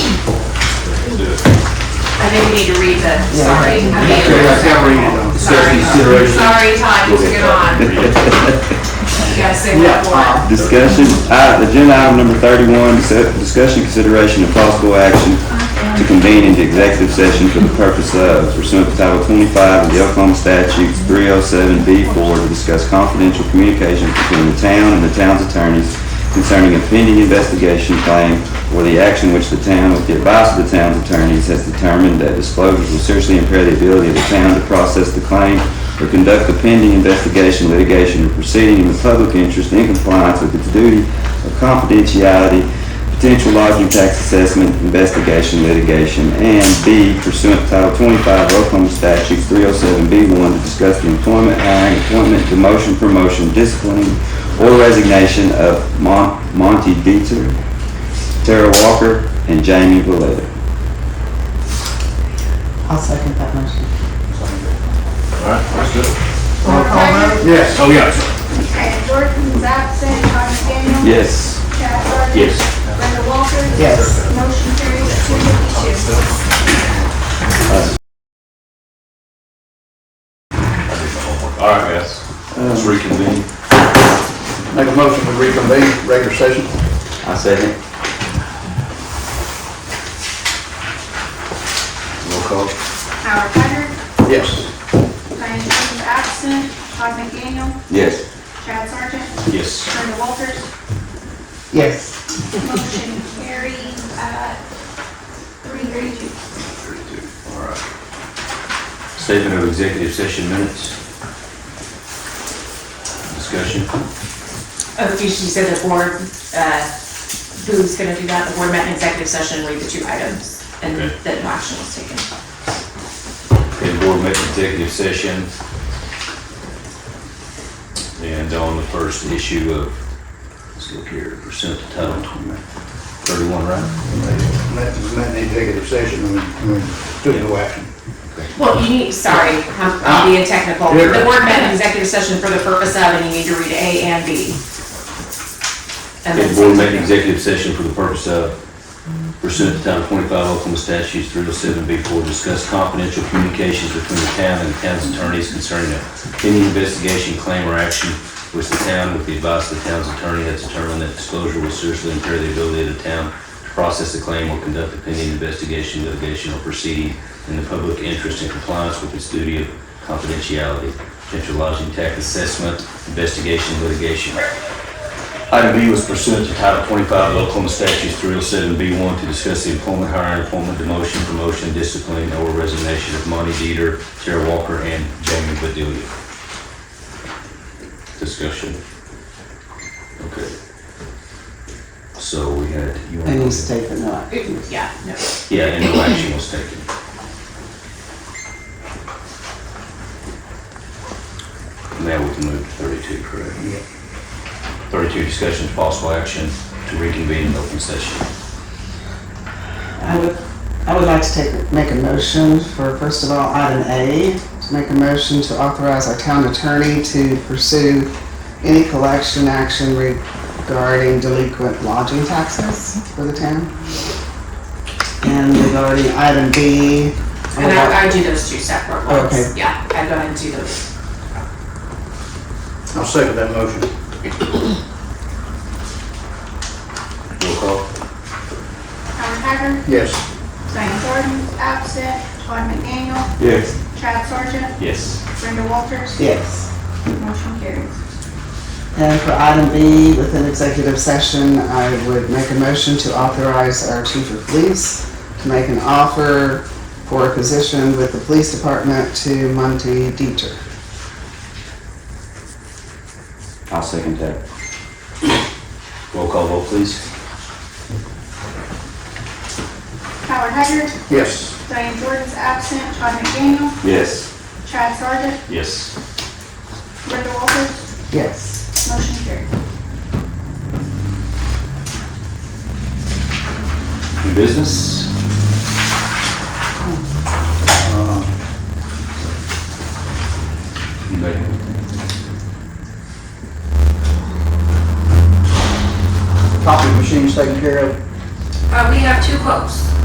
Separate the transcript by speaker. Speaker 1: think we need to read the, sorry. I mean,
Speaker 2: Okay, I can't read it
Speaker 3: uh,
Speaker 2: though.
Speaker 1: Sorry,
Speaker 4: consideration.
Speaker 1: sorry, Todd, you took it on. You gotta say what, what?
Speaker 5: Discussion, uh, agenda item number thirty-one, dis- discussion, consideration, and possible action to convene into executive session for the purpose of pursuant to Title twenty-five of the Oklahoma statutes three oh seven B four to discuss confidential communications between the town and the town's attorneys concerning a pending investigation claim or the action which the town, with the advice of the town's attorneys, has determined that disclosures will seriously impair the ability of the town to process the claim or conduct the pending investigation, litigation, or proceeding in the public interest in compliance with its duty of confidentiality, potential lodging tax assessment, investigation, litigation, and B pursuant to Title 25 of Oklahoma Statutes 307B1 to discuss the employment, hiring, appointment, demotion, promotion, disciplining, or resignation of Mon- Monty Dieter, Tara Walker, and Jamie Valletta.
Speaker 6: I'll second that motion.
Speaker 4: Alright, that's good.
Speaker 2: Yes.
Speaker 4: Oh, yeah.
Speaker 7: Okay, Jordan's absent, Todd McDaniel.
Speaker 5: Yes.
Speaker 7: Chad Sargent.
Speaker 4: Yes.
Speaker 7: Brenda Walters.
Speaker 6: Yes.
Speaker 7: Motion carries at two fifty-two.
Speaker 4: Alright, guys. Let's reconvene.
Speaker 2: Make a motion to reconvene regular session.
Speaker 5: I second.
Speaker 4: Roll call.
Speaker 7: Howard Haggard.
Speaker 2: Yes.
Speaker 7: Diane Jordan's absent, Todd McDaniel.
Speaker 5: Yes.
Speaker 7: Chad Sargent.
Speaker 4: Yes.
Speaker 7: Brenda Walters.
Speaker 6: Yes.
Speaker 7: Motion carries at three thirty-two.
Speaker 4: Alright. Statement of executive session minutes. Discussion.
Speaker 3: Oh, you she said the board, uh, who's gonna do that, the board met in executive session, read the two items, and
Speaker 4: Okay.
Speaker 3: that no action was taken.
Speaker 4: Okay, board met in executive session. And on the first issue of, let's look here, percent of total, thirty-one, right?
Speaker 2: That was not an executive session and we- we took no action.
Speaker 3: Well, you need, sorry, I'm
Speaker 4: Ah.
Speaker 3: I'm being technical,
Speaker 2: You're
Speaker 3: the
Speaker 2: right.
Speaker 3: board met in executive session for the purpose of, and you need to read A and B. And
Speaker 4: Okay,
Speaker 3: then-
Speaker 4: board met in executive session for the purpose of pursuant to Title twenty-five Oklahoma statutes three oh seven B four, discuss confidential communications between the town and the town's attorneys concerning any investigation, claim, or action which the town, with the advice of the town's attorney, has determined that disclosure will seriously impair the ability of the town to process the claim or conduct a pending investigation, litigation, or proceeding in the public interest in compliance with its duty of confidentiality, potential lodging tax assessment, investigation, litigation, Item B was pursuant to Title 25 of Oklahoma Statutes 307B1 to discuss the employment, hiring, employment, demotion, promotion, discipline, or resignation of Monty Dieter, Tara Walker, and Jamie Bedelia. Discussion. Okay. So we had, you want
Speaker 6: And you
Speaker 4: to...
Speaker 6: state that no action.
Speaker 3: Yeah, no.
Speaker 6: Oh,
Speaker 4: Yeah, and no action was taken. Now we can move to 32, correct? 32, discussion of possible action to reconvene in open session.
Speaker 6: I would, I would like to take, make a motion for, first of all, item A, to make a motion to authorize our town attorney to pursue any collection action regarding delinquent lodging taxes for the town. And regarding item B, I
Speaker 3: And
Speaker 6: would like-
Speaker 3: I, I do those two separate
Speaker 6: Okay.
Speaker 3: ones, yeah, I go ahead and do those.
Speaker 2: I'll second that motion.
Speaker 4: Roll call.
Speaker 7: Howard Haggard.
Speaker 2: Yes.
Speaker 7: Diane Jordan's absent, Todd McDaniel.
Speaker 5: Yes.
Speaker 7: Chad Sargent.
Speaker 4: Yes.
Speaker 7: Brenda Walters.
Speaker 6: yes.
Speaker 7: Motion carries.
Speaker 6: And for item B, within executive session, I would make a motion to authorize our chief of police to make an offer for a position with the police department to Monty Dieter.
Speaker 5: I'll second that.
Speaker 4: Roll call vote, please.
Speaker 7: Howard Haggard.
Speaker 2: Yes.
Speaker 7: Diane Jordan's absent, Todd McDaniel.
Speaker 5: Yes.
Speaker 7: Chad Sargent.
Speaker 4: Yes.
Speaker 7: Brenda Walters.
Speaker 6: Yes.
Speaker 7: Motion carries.
Speaker 4: New business? Anybody?
Speaker 2: Copy machines taken care of.
Speaker 1: Uh, we have two quotes.